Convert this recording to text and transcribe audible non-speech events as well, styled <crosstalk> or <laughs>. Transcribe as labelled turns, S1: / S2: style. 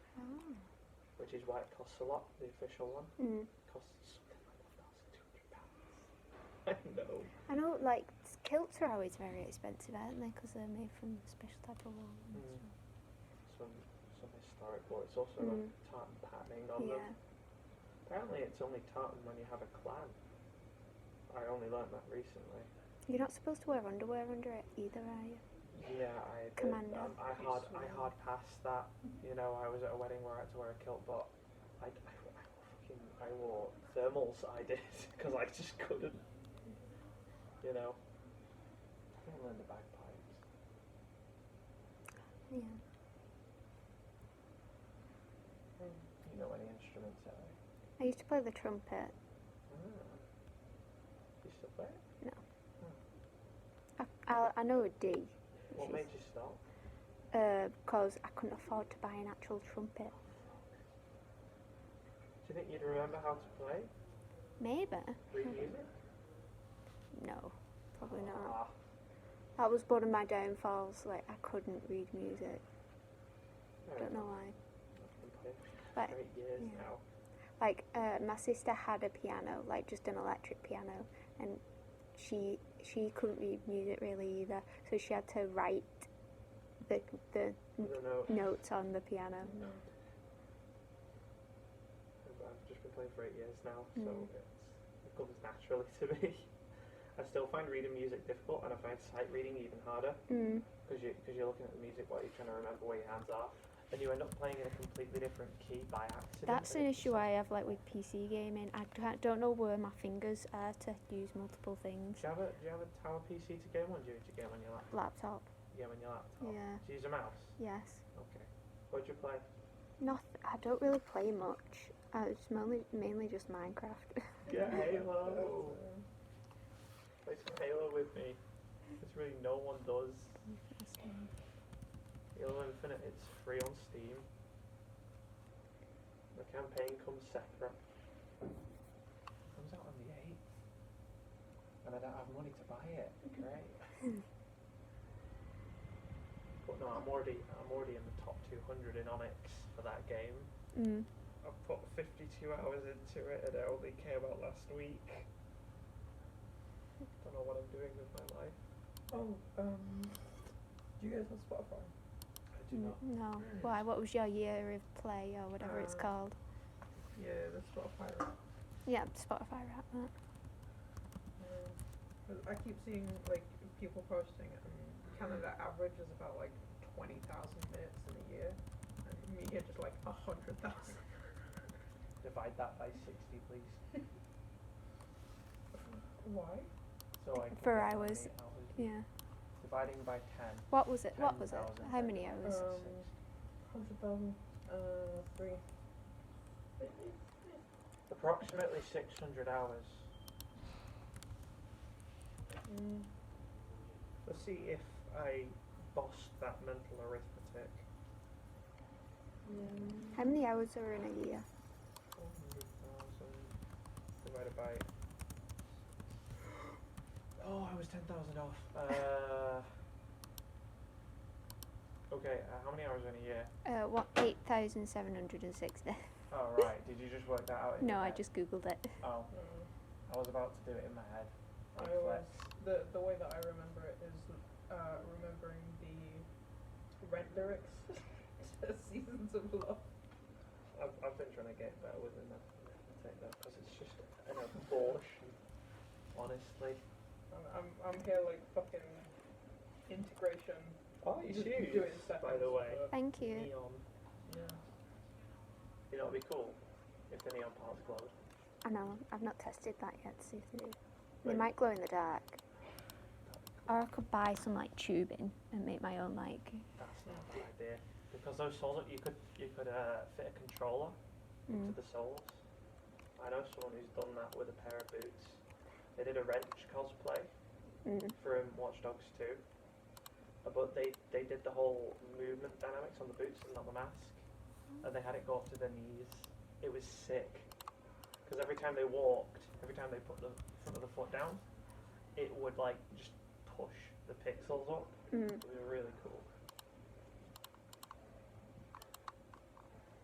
S1: Oh.
S2: which is why it costs a lot. The official one
S1: Mm.
S2: costs something like one thousand two hundred pounds.
S1: <laughs> I know, like s- kilts are always very expensive, aren't they? Because they're made from a special type of wool.
S2: I
S1: and
S2: know. Mm.
S1: stuff.
S2: Some some historic wool. It's also got
S1: Mm.
S2: tartan patterning on them.
S1: Yeah.
S2: Apparently, it's only tartan when you have a clan. I only learnt that recently.
S1: You're not supposed to wear underwear under it either, are you?
S2: Yeah, I did.
S1: Commando.
S2: Um, I hard I hard passed that. You know, I was at a wedding where I had to wear a kilt, but I, I, I fucking I wore thermals. I did <laughs> because I just couldn't. You know, I didn't learn the bagpipes.
S1: Yeah.
S2: You know any instruments, Ellie?
S1: I used to play the trumpet.
S2: Ah. You still play? it?
S1: I, I, I know a D.
S2: What made you stop?
S1: Because I couldn't afford to buy an actual trumpet.
S2: Do you think you'd remember how to play?
S1: Maybe.
S2: Read music?
S1: No, Hmm. probably not.
S2: Ah,
S1: That was one of my downfalls. Like I couldn't read music.
S2: no,
S1: Don't know why.
S2: I've been playing for
S1: But
S2: eight years
S1: yeah.
S2: now.
S1: like uh, my sister had a piano, like just an electric piano, and she she couldn't read music really either, so she had to write the the
S2: I don't know.
S1: notes on the piano.
S2: I've- I've just been playing for eight years now, so
S1: Mm.
S2: it's, it comes naturally to me. <laughs> I still find reading music difficult, and I find sight reading even harder
S1: Mm.
S2: because you, cause you're looking at the music while you're trying to remember where your hands are, and you end up playing in a completely different key by accident.
S1: That's
S2: and
S1: an
S2: it's
S1: issue
S2: just-
S1: I have like with PC gaming. I ca- don't know where my fingers are to use multiple things.
S2: Do you, have a, do you have a tower PC to game on? Do you, do you game on your laptop?
S1: Laptop.
S2: Game on your laptop.
S1: Yeah.
S2: Do you use a mouse?
S1: Yes.
S2: Okay. What'd you play?
S1: Not. I don't really play much. Uh, it's mainly mainly just <laughs> Minecraft.
S2: Yeah, Halo. Play some Halo with me. It's really no one does. Halo Infinite, it's free on Steam. The campaign comes separate. Comes out on the 8th. And I don't have money to buy it. Great. but no, I'm already I'm already in the top 200 in Onyx for that game.
S1: mm.
S2: I've put 52 hours into it and it only came out last week. Don't know what I'm doing with my life.
S3: Oh, um, do you guys have Spotify?
S2: I do
S1: Mm, No.
S2: not.
S1: Why? What was your year of play or whatever it's
S2: Uh,
S1: called?
S3: Yeah, that's Spotify. Right?
S1: Yeah, Spotify rap that.
S3: Yeah. I keep seeing like people posting it. and Canada average is about like twenty thousand minutes in a year, and me here just like a hundred thousand. <laughs>
S2: Divide that by 60, please.
S3: Why?
S2: So I can
S1: For
S2: get how
S1: hours.
S2: many hours.
S1: Yeah.
S2: Dividing by 10.
S1: What was it? What was it?
S2: 10,000
S1: How many hours?
S2: times
S3: Um,
S2: six.
S3: Hundred thousand, uh, three.
S2: Approximately 600 hours.
S3: Mm.
S2: Let's see if I bossed that mental arithmetic.
S3: Yeah.
S1: How many hours are in a year?
S2: 400,000 divided by. <gasps> Oh, I was 10,000 off. Uh, okay, uh, how many hours in a year?
S1: Uh, what? Eight thousand seven hundred and sixty.
S2: Oh, right. Did you just work that out? in
S1: <laughs> No, I
S2: your head?
S1: just googled it.
S2: Oh,
S3: Uh,
S2: I was about to do it in my head.
S3: I
S2: Like,
S3: was
S2: let's-
S3: the the way that I remember it is uh, remembering the rent lyrics <laughs> to Seasons of Love.
S2: I've, I've been trying to get better with it now. Take that because it's just an abortion. Honestly.
S3: I'm I'm, I'm here like fucking integration.
S2: Oh,
S3: you should do it in
S2: By the
S3: seconds,
S2: way,
S3: but-
S1: Thank you.
S2: neon.
S3: Yeah.
S2: You know, it'd be cool if the neon parts glowed.
S1: I know. I've not tested that yet. To see if they do. They
S2: Right.
S1: might glow in the dark. Or I could buy some like tubing and make my own like.
S2: That's not a bad idea because those soles you could you could uh, fit a controller
S1: Mm.
S2: into the soles. I know someone who's done that with a pair of boots. They did a wrench cosplay
S1: Mm.
S2: from Watch Dogs 2, uh, but they they did the whole movement dynamics on the boots and not the mask, and they had it go up to their knees. It was sick because every time they walked, every time they put the front of the foot down, it would like just push the pixels up.
S1: Mm.
S2: It was really cool.